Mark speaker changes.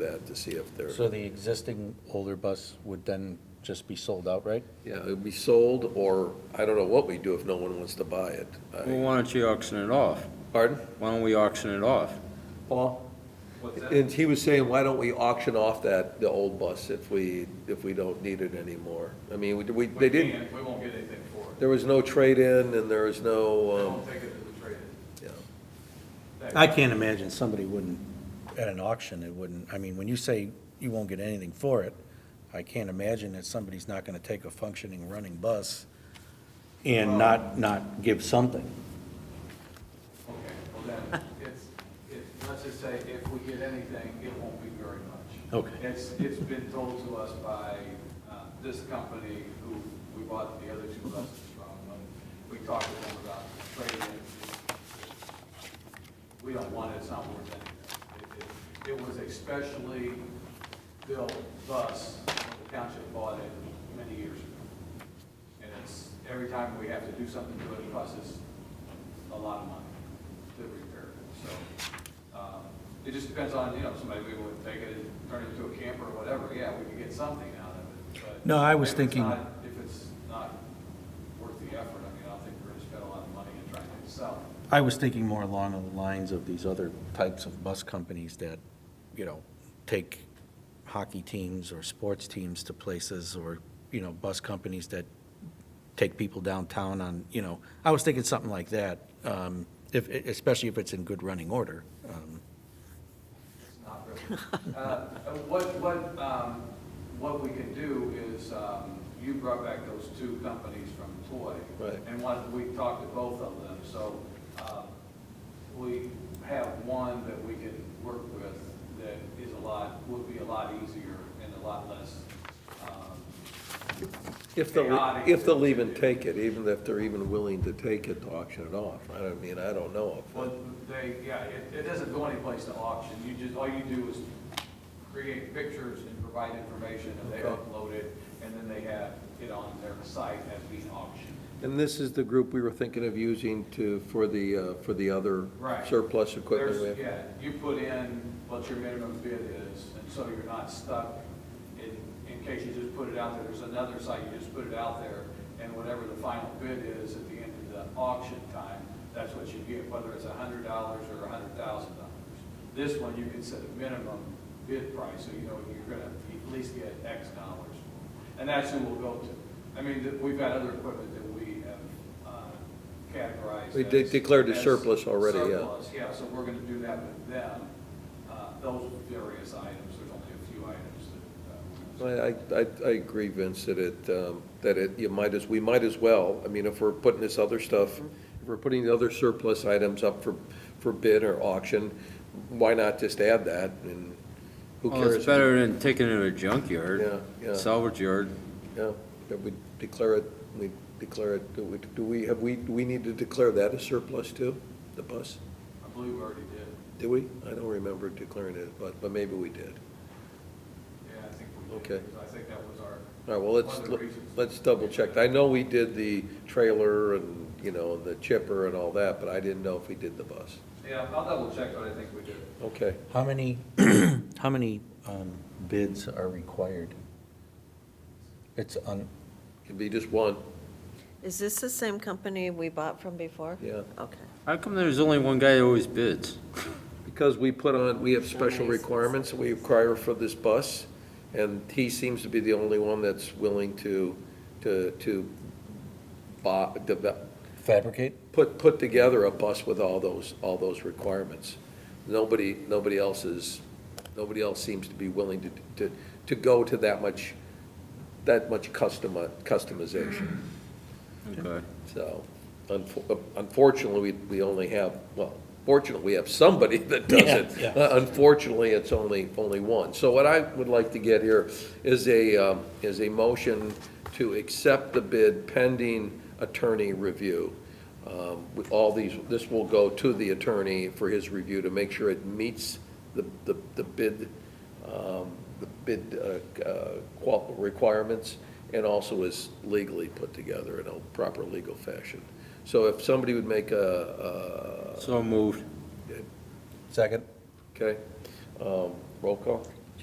Speaker 1: that to see if they're,
Speaker 2: So the existing older bus would then just be sold outright?
Speaker 1: yeah, it'd be sold, or I don't know what we do if no one wants to buy it.
Speaker 3: Well,
Speaker 1: I-
Speaker 3: why don't you auction it off?
Speaker 1: Pardon?
Speaker 3: Why don't we auction it off?
Speaker 1: Paul?
Speaker 4: What's that?
Speaker 1: And he was saying, why don't we auction off that, the old bus if we, if we don't need it anymore? I mean, we, we- they
Speaker 4: We
Speaker 1: didn't,
Speaker 4: can't- We won't get anything for it.
Speaker 1: there was no trade-in and there was
Speaker 4: We
Speaker 1: no,
Speaker 4: won't take it to the trade-in.
Speaker 1: um,
Speaker 2: I can't imagine somebody wouldn't, at an auction, it wouldn't, I mean, when you say you won't get anything for it, I can't imagine that somebody's not gonna take a functioning, running bus and not, not give something.
Speaker 4: Okay, well then, it's, it's, let's just say if we get anything, it won't be very much.
Speaker 2: Okay.
Speaker 4: It's, it's been told to us by, uh, this company who we bought the other two buses from, when we talked to them about trading. it, We don't want it, it's not worth anything. It- It, it was a specially built bus, the township bought it many years ago. And it's, every time we have to do something to it, it costs us a lot of money to repair it. So, um, it just depends on, you know, somebody maybe would take it and turn it into a camper or whatever, yeah, we could get something out of it, but.
Speaker 2: No, I was
Speaker 4: if it's
Speaker 2: thinking-
Speaker 4: not- If it's not worth the effort, I mean, I don't think we're gonna spend a lot of money in trying to sell it.
Speaker 2: I was thinking more along the lines of these other types of bus companies that, you know, take hockey teams or sports teams to places, or, you know, bus companies that take people downtown on, you know, I was thinking something like that, um, if, especially if it's in good running order. Um,
Speaker 4: It's not really. Uh, What, what, um, what we can do is, um, you brought back those two companies from Toy.
Speaker 1: Right.
Speaker 4: And one, we talked to both of them, so, um, we have one that we can work with that is a lot, would be a lot easier and a lot less, um,
Speaker 1: if they'll,
Speaker 4: Chaotic.
Speaker 1: if they'll even take it, even if they're even willing to take it to auction it off. I don't mean, I don't know if.
Speaker 4: Well, they, yeah, it, it doesn't go anyplace to auction, you just, all you do is create pictures and provide information, and they
Speaker 1: Okay.
Speaker 4: upload it, and then they have it on their site as being auctioned.
Speaker 1: And this is the group we were thinking of using to, for the, uh, for the other
Speaker 4: Right.
Speaker 1: surplus equipment we
Speaker 4: There's-
Speaker 1: have?
Speaker 4: Yeah, you put in what your minimum bid is, and so you're not stuck in, in case you just put it out there, there's another site, you just put it out there, and whatever the final bid is at the end of the auction time, that's what you get, whether it's a hundred dollars or a hundred thousand dollars. This one, you can set a minimum bid price, so you know you're gonna at least get X dollars. And that's who we'll go to. I mean, th- we've got other equipment that we have uh, categorized.
Speaker 1: We de-
Speaker 4: as-
Speaker 1: declared a
Speaker 4: as
Speaker 1: surplus already, yeah.
Speaker 4: surplus, yeah, so we're gonna do that with them, uh, those various items, there's only a few items that. uh, we're gonna-
Speaker 1: I, I, I agree, Vince, that it, um, that it, you might as, we might as well, I mean, if we're putting this other stuff, if we're putting the other surplus items up for, for bid or auction, why not just add that, and who
Speaker 3: Well,
Speaker 1: cares?
Speaker 3: it's better than taking it to a junkyard,
Speaker 1: Yeah, yeah.
Speaker 3: salvage yard.
Speaker 1: Yeah, that we declare it, we declare it, do we, do we, have we, do we need to declare that a surplus too, the bus?
Speaker 4: I believe we already did,
Speaker 1: Did we? I don't remember declaring it, but, but maybe we did.
Speaker 4: yeah, I think we did.
Speaker 1: Okay.
Speaker 4: because I think that was our.
Speaker 1: All right, well, let's,
Speaker 4: one of the reasons.
Speaker 1: let's double check. I know we did the trailer and, you know, the chipper and all that, but I didn't know if we did the bus.
Speaker 4: Yeah, I'll double check, but I think we did.
Speaker 1: Okay,
Speaker 2: How many, how many um, bids are required? It's on,
Speaker 1: could be just one,
Speaker 5: Is this the same company we bought from before?
Speaker 1: yeah.
Speaker 5: Okay.
Speaker 3: How come there's only one guy that always bids?
Speaker 1: Because we put on, we have special
Speaker 5: Nice.
Speaker 1: requirements that we require for this bus, and he seems to be the only one that's willing to, to, to buy, develop,
Speaker 2: fabricate?
Speaker 1: put, put together a bus with all those, all those requirements. Nobody, nobody else is, nobody else seems to be willing to, to, to go to that much, that much custom, customization.
Speaker 3: Okay.
Speaker 1: So unfo- unfortunately, we, we only have, well, fortunately, we have somebody that does
Speaker 2: Yeah,
Speaker 1: it. Uh, Unfortunately, it's only, only one. So what I would like to get here is a, um, is a motion to accept the bid pending attorney review. Um, With all these, this will go to the attorney for his review to make sure it meets the, the the bid, um, the bid uh, uh, qual- requirements, and also is legally put together in a proper legal fashion. So if somebody would make a,
Speaker 3: So moved.
Speaker 2: Second?
Speaker 1: a- okay, um, roll call?